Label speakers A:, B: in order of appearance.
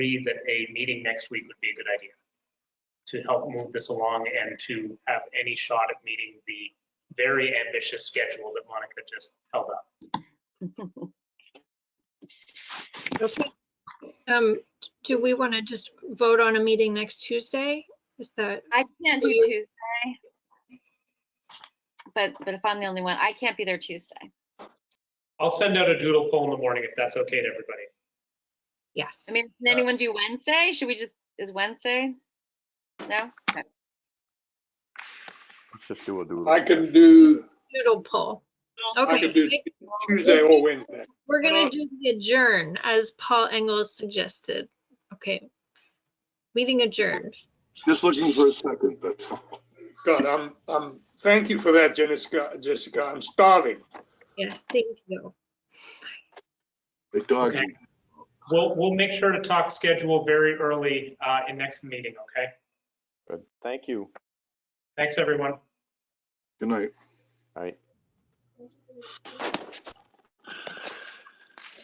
A: agree that a meeting next week would be a good idea to help move this along and to have any shot at meeting the very ambitious schedule that Monica just held up.
B: Okay. Um, do we want to just vote on a meeting next Tuesday? Is that,
C: I can't do
B: Please.
C: Tuesday. But, but if I'm the only one, I can't be there Tuesday.
A: I'll send out a doodle poll in the morning if that's okay to everybody.
B: yes.
C: I mean, can anyone do Wednesday? Should we just, is Wednesday? No? Okay.
D: Let's just do a doodle.
E: I can do,
B: Doodle poll.
E: I
B: Okay.
E: can do Tuesday or Wednesday.
B: We're gonna do the adjourn as Paul Engels suggested. Okay. Meeting adjourned.
F: Just looking for a second, that's all.
E: God, I'm, I'm, thank you for that, Jessica, Jessica, I'm starving.
B: Yes, thank you.
F: The dog's
A: Okay. We'll, we'll make sure to talk schedule very early uh, in next meeting, okay?
D: Good. Thank you.
A: Thanks, everyone.
F: good night.
D: All right.